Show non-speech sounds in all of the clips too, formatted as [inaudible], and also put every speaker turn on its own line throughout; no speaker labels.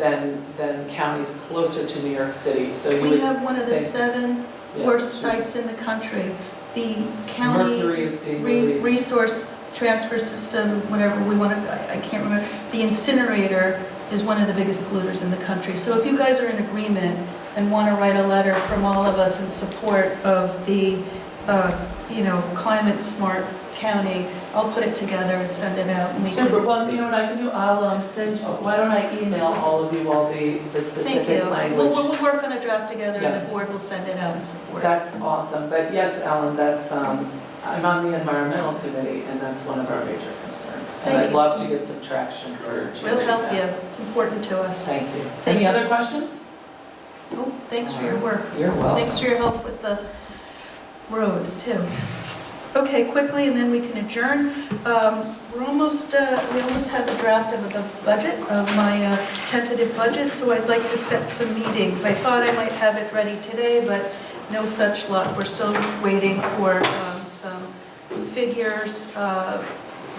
than, than counties closer to New York City, so you
We
would.
have one of the
Thank-
seven
yeah,
worst
just-
sites in the country. The county
Mercury is being
re-
released.
resource transfer system, whatever we want to, I can't remember, the incinerator is one of the biggest polluters in the country. So if you guys are in agreement and want to write a letter from all of us in support of the, uh, you know, climate-smart county, I'll put it together and send it out. and we can-
Super, well, you know what I can do, I'll um, send, why don't I email all of you all the, the
Thank
specific
you. We'll,
language?
we'll work on a draft together
Yeah.
and the board will send it out in support.
That's awesome, but yes, Alan, that's, um, I'm on the environmental committee, and that's one of our major concerns. And
Thank
I'd
you.
love to get some traction for changing
We'll help you,
that.
it's important to us.
Thank you.
Thank
Any
you.
other questions?
Oh, Thanks for your work.
You're
Thanks
welcome.
for your help with the roads, too. Okay, quickly, and then we can adjourn. Um, We're almost, uh, we almost have a draft of the budget, of my uh, tentative budget, so I'd like to set some meetings. I thought I might have it ready today, but no such luck. We're still waiting for um, some figures uh,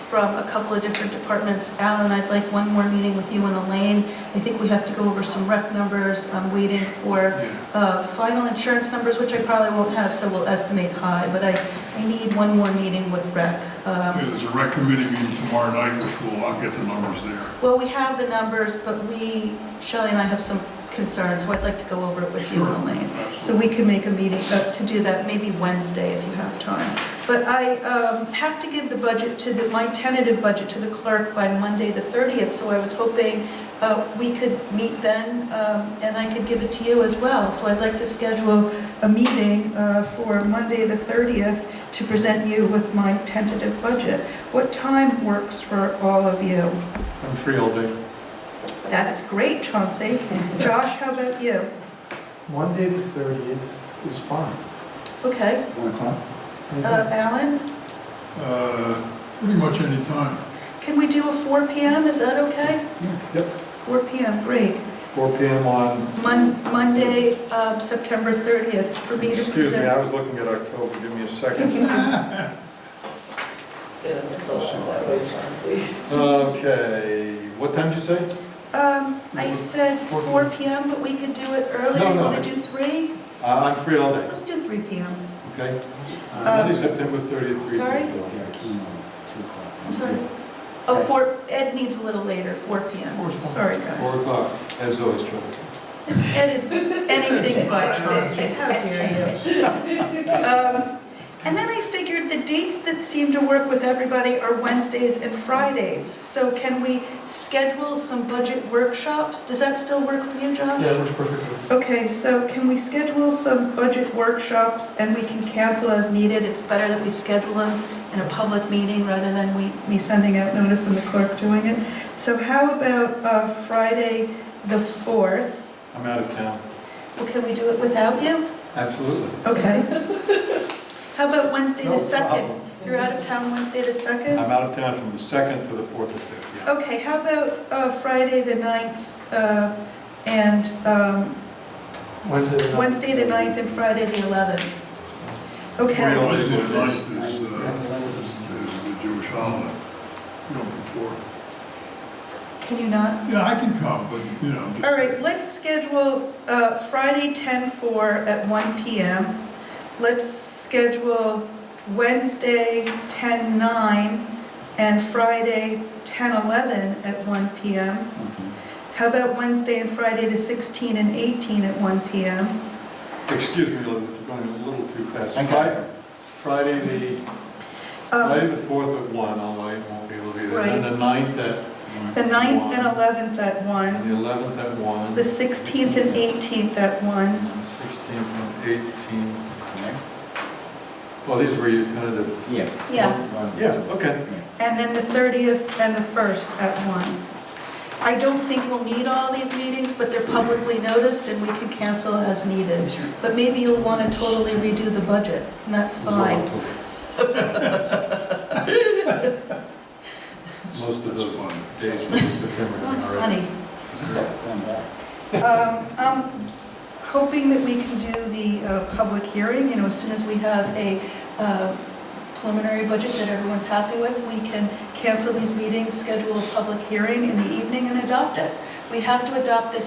from a couple of different departments. Alan, I'd like one more meeting with you and Elaine. I think we have to go over some rec numbers. I'm waiting for
Yeah,
uh, final insurance numbers, which I probably won't have, so we'll estimate high, but I, I need one more meeting with rec. Um,
Yeah, there's a rec committee meeting tomorrow night, which will, I'll get the numbers there.
Well, we have the numbers, but we, Shelley and I have some concerns, so I'd like to go over it with you,
Sure.
Elaine. So
Absolutely.
we can make a meeting uh, to do that, maybe Wednesday if you have time. But I um, have to give the budget to, the- my tentative budget to the clerk by Monday, the 30th, so I was hoping uh, we could meet then, um, and I could give it to you as well. So I'd like to schedule a meeting uh, for Monday, the 30th, to present you with my tentative budget. What time works for all of you?
I'm free all day.
That's great, Chauncey. Josh, how about you?
Monday the thirtieth is fine.
Okay.
One o'clock?
Uh, Alan?
Uh, Pretty much any time.
Can we do a 4 PM, is that okay?
Yep,
4 PM, great.
four PM on,
Mon- Monday, um, September 30th, for me to
excuse me,
present.
I was looking at October, give me a second.
Yeah, that's all right. That way, Chauncey.
Okay, what time did you say?
Um, I said
4
4 PM, but we could do it earlier,
No,
you
no,
want
I-
to do 3?
Uh, I'm free all day,
Let's do 3 PM.
okay?
Um,
Monday, September thirtieth.
sorry? Um, I'm
I'm
sorry. Oh, 4, Ed needs a little later, 4 PM,
Four's fine.
sorry,
Four
guys.
o'clock, as always, Travis.
Ed is anything but, how dare you. Um, And then I figured the dates that seem to work with everybody are Wednesdays and Fridays. So can we schedule some budget workshops? Does that still work for you, Josh?
it works perfectly.
Okay, so can we schedule some budget workshops and we can cancel as needed? It's better that we schedule them in a public meeting rather than we, me sending out notice and the clerk doing it. So how about uh, Friday, the 4th?
I'm out of town,
Well, can we do it without you?
absolutely.
Okay. [laughs] How about Wednesday the
No
2nd?
problem.
You're out of town Wednesday the 2nd?
I'm out of town from the second to the fourth or fifth, yeah.
Okay, how about uh, Friday the 9th uh, and um,
Wednesday the
Wednesday the 9th and Friday the 11th?
We
Okay,
don't-
Wednesday night is, uh, is the Jewish holiday, Yom Kippur.
Uh-huh. can you not?
Yeah, I can come, but, you know. I'm just-
All right, let's schedule uh, Friday 10:04 at 1 PM. Let's schedule Wednesday 10:09 and Friday 10:11 at 1 PM. How about Wednesday and Friday, the 16 and 18 at 1 PM? Oh.
Excuse me, Elizabeth, you're going a little too fast.
Thank
Fri- Friday, the,
Um,
Friday the 4th at 1, I'll, I won't be able to be there. And
Right.
the 9th at
The 9th
1,
and 11th at 1,
And the 11th at 1.
the 16th and 18th at 1.
16th and 18th. Well, these were your tentative.
Yeah.
Yes.
Yeah, okay.
And then the 30th and the 1st at 1. I don't think we'll need all these meetings, but they're publicly noticed and we can cancel as needed. But maybe you'll want to totally redo the budget, and that's fine.
[laughs] Most of
That's
those
fine.
days were September.
Not
already.
funny. Um, I'm hoping that we can do the uh, public hearing, you know, as soon as we have a uh, preliminary budget that everyone's happy with, we can cancel these meetings, schedule a public hearing in the evening and adopt it. we have to adopt this